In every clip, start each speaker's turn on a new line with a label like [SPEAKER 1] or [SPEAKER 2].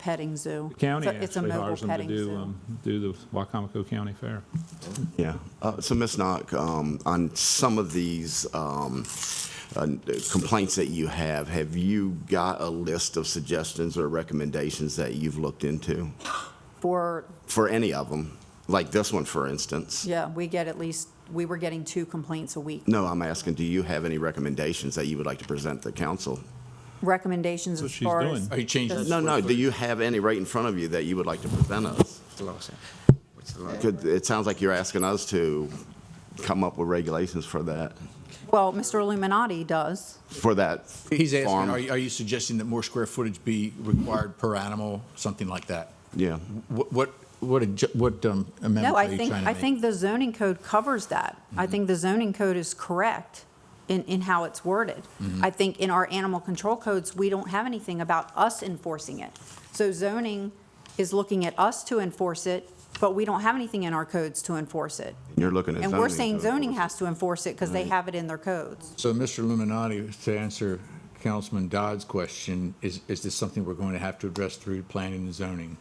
[SPEAKER 1] petting zoo.
[SPEAKER 2] The county
[SPEAKER 1] It's a- it's a
[SPEAKER 2] actually
[SPEAKER 1] mobile
[SPEAKER 2] hires them to
[SPEAKER 1] petting
[SPEAKER 2] do,
[SPEAKER 1] zoo.
[SPEAKER 2] um, do the Wycomico County Fair.
[SPEAKER 3] Yeah. Uh, So Ms. Knock, um, on some of these um, uh, complaints that you have, have you got a list of suggestions or recommendations that you've looked into?
[SPEAKER 1] For,
[SPEAKER 3] For any of them, like this one, for instance?
[SPEAKER 1] yeah, we get at least, we were getting two complaints a week.
[SPEAKER 3] No, I'm asking, do you have any recommendations that you would like to present the council?
[SPEAKER 1] Recommendations as
[SPEAKER 2] That's what she's
[SPEAKER 1] far as.
[SPEAKER 2] doing.
[SPEAKER 4] Oh, you changed that.
[SPEAKER 3] No, no, do you have any right in front of you that you would like to present us?
[SPEAKER 4] What's the law say? What's the law?
[SPEAKER 3] Could- It sounds like you're asking us to come up with regulations for that,
[SPEAKER 1] Well, Mr. Illuminati does.
[SPEAKER 3] for that
[SPEAKER 4] He's asking,
[SPEAKER 3] farm.
[SPEAKER 4] are you, are you suggesting that more square footage be required per animal, something like that?
[SPEAKER 3] Yeah.
[SPEAKER 4] What, what, what adju- what um, amendment
[SPEAKER 1] No,
[SPEAKER 4] are
[SPEAKER 1] I
[SPEAKER 4] you
[SPEAKER 1] think,
[SPEAKER 4] trying to
[SPEAKER 1] I
[SPEAKER 4] make?
[SPEAKER 1] think the zoning code covers that. I
[SPEAKER 2] Mm-hmm.
[SPEAKER 1] think the zoning code is correct in, in how it's worded.
[SPEAKER 2] Mm-hmm.
[SPEAKER 1] I think in our animal control codes, we don't have anything about us enforcing it. So zoning is looking at us to enforce it, but we don't have anything in our codes to enforce it.
[SPEAKER 3] You're looking at
[SPEAKER 1] And
[SPEAKER 3] zoning.
[SPEAKER 1] we're saying
[SPEAKER 3] to enforce
[SPEAKER 1] zoning
[SPEAKER 3] it.
[SPEAKER 1] has to enforce it because they have it in their codes.
[SPEAKER 4] So, Mr. Illuminati, to answer Councilman Dodd's question, is, is this something we're going to have to address through planning and zoning?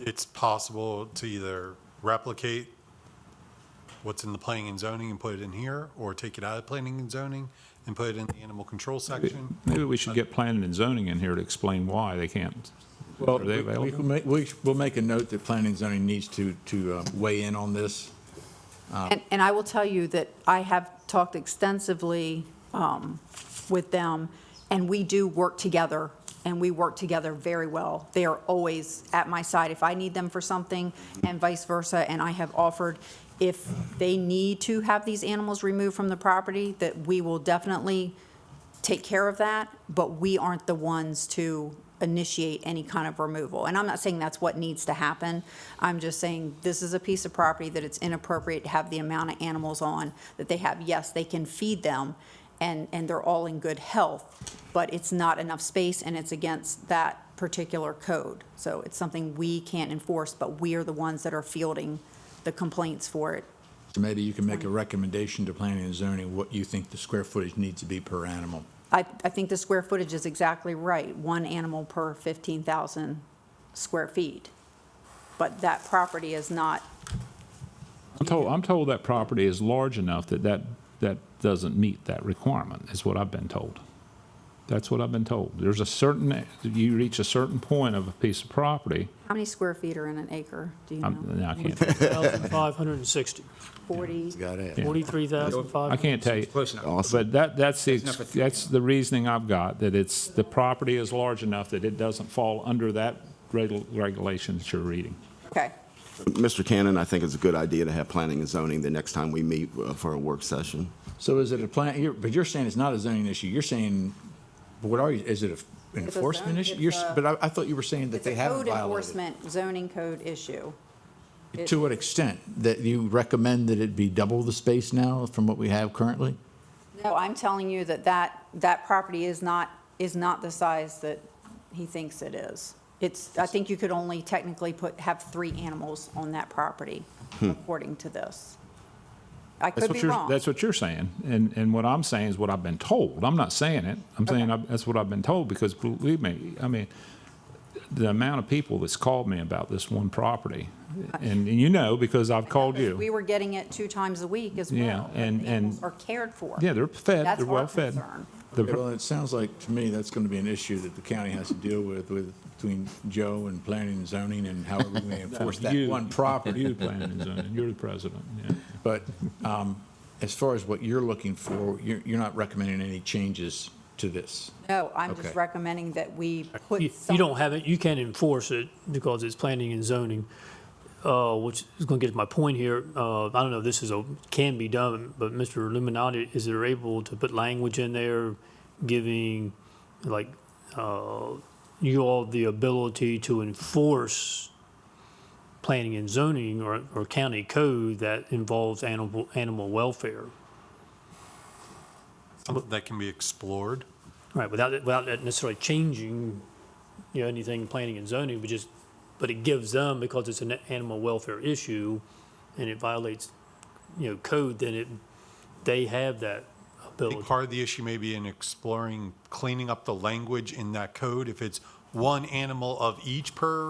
[SPEAKER 5] it's possible to either replicate what's in the planning and zoning and put it in here, or take it out of planning and zoning and put it in the animal control section.
[SPEAKER 2] Maybe we should get planning and zoning in here to explain why they can't. Are they
[SPEAKER 4] We-
[SPEAKER 2] available?
[SPEAKER 4] We'll make, we- we'll make a note that planning and zoning needs to, to uh, weigh in on this.
[SPEAKER 1] And, and I will tell you that I have talked extensively um, with them, and we do work together, and we work together very well. They are always at my side if I need them for something, and vice versa, and I have offered, if they need to have these animals removed from the property, that we will definitely take care of that, but we aren't the ones to initiate any kind of removal. And I'm not saying that's what needs to happen. I'm just saying this is a piece of property that it's inappropriate to have the amount of animals on that they have. Yes, they can feed them and, and they're all in good health, but it's not enough space and it's against that particular code. So it's something we can't enforce, but we are the ones that are fielding the complaints for it.
[SPEAKER 4] So maybe you can make a recommendation to planning and zoning, what you think the square footage needs to be per animal.
[SPEAKER 1] I, I think the square footage is exactly right, one animal per 15,000 square feet. But that property is not,
[SPEAKER 2] I'm told, I'm told that property is large enough that that, that doesn't meet that requirement, is what I've been told. That's what I've been told. There's a certain, you reach a certain point of a piece of property,
[SPEAKER 1] how many square feet are in an acre? Do you know?
[SPEAKER 2] I'm, no, I can't,
[SPEAKER 6] 1,560,
[SPEAKER 1] 40?
[SPEAKER 4] Got it.
[SPEAKER 6] 43,500.
[SPEAKER 2] I can't tell you.
[SPEAKER 4] Close enough.
[SPEAKER 2] But that, that's the,
[SPEAKER 4] enough for
[SPEAKER 2] ex- that's the reasoning I've got, that it's, the property is large enough that it doesn't fall under that reg- regulation that you're reading.
[SPEAKER 1] Okay,
[SPEAKER 3] Mr. Cannon, I think it's a good idea to have planning and zoning the next time we meet uh, for a work session.
[SPEAKER 4] So is it a plan, you're, but you're saying it's not a zoning issue, you're saying, what are you, is it a- an
[SPEAKER 1] It's a
[SPEAKER 4] enforcement
[SPEAKER 1] zone-
[SPEAKER 4] issue?
[SPEAKER 1] it's
[SPEAKER 4] You're, s-
[SPEAKER 1] a-
[SPEAKER 4] but I, I thought you were saying that
[SPEAKER 1] it's a
[SPEAKER 4] they haven't
[SPEAKER 1] code
[SPEAKER 4] violated.
[SPEAKER 1] enforcement zoning code issue.
[SPEAKER 4] it. To what extent? That you recommend that it be double the space now from what we have currently?
[SPEAKER 1] No, I'm telling you that that, that property is not, is not the size that he thinks it is. It's, I think you could only technically put, have three animals on that property,
[SPEAKER 4] Hmm.
[SPEAKER 1] according to this. I
[SPEAKER 2] That's
[SPEAKER 1] could
[SPEAKER 2] what
[SPEAKER 1] be
[SPEAKER 2] you're,
[SPEAKER 1] wrong.
[SPEAKER 2] that's what you're saying. And, and what I'm saying is what I've been told. I'm not saying it. I'm saying I- that's what I've been told because believe me, I mean, the amount of people that's called me about this one property, and you know, because I've called
[SPEAKER 1] We
[SPEAKER 2] you.
[SPEAKER 1] were getting it two times a week as well.
[SPEAKER 2] Yeah, and-
[SPEAKER 1] the animals
[SPEAKER 2] and-
[SPEAKER 1] Are cared for.
[SPEAKER 2] Yeah, they're fed,
[SPEAKER 1] That's
[SPEAKER 2] they're
[SPEAKER 1] our
[SPEAKER 2] well-fed.
[SPEAKER 1] concern.
[SPEAKER 2] The
[SPEAKER 4] Okay,
[SPEAKER 2] pr-
[SPEAKER 4] Well, it sounds like, to me, that's going to be an issue that the county has to deal with, with, between Joe and planning and zoning and how are we going to enforce that
[SPEAKER 2] you-
[SPEAKER 4] one property.
[SPEAKER 2] You planning and zoning, you're the president, yeah.
[SPEAKER 4] But um, as far as what you're looking for, you're, you're not recommending any changes to this?
[SPEAKER 1] No, I'm just
[SPEAKER 4] Okay.
[SPEAKER 1] recommending that we put
[SPEAKER 6] Uh, You
[SPEAKER 1] some.
[SPEAKER 6] you don't have it, you can't enforce it because it's planning and zoning, uh, which is going to get to my point here. Uh, I don't know if this is a, can be done, but Mr. Illuminati, is there able to put language in there giving, like, uh, you all the ability to enforce planning and zoning or, or county code that involves animal, animal welfare?
[SPEAKER 5] Something that can be explored.
[SPEAKER 6] Right, without, it- without it necessarily changing, you know, anything planning and zoning, but just, but it gives them, because it's an animal welfare issue, and it violates, you know, code, then it, they have that
[SPEAKER 5] I think
[SPEAKER 6] ability.
[SPEAKER 5] part of the issue may be in exploring cleaning up the language in that code if it's one animal of each per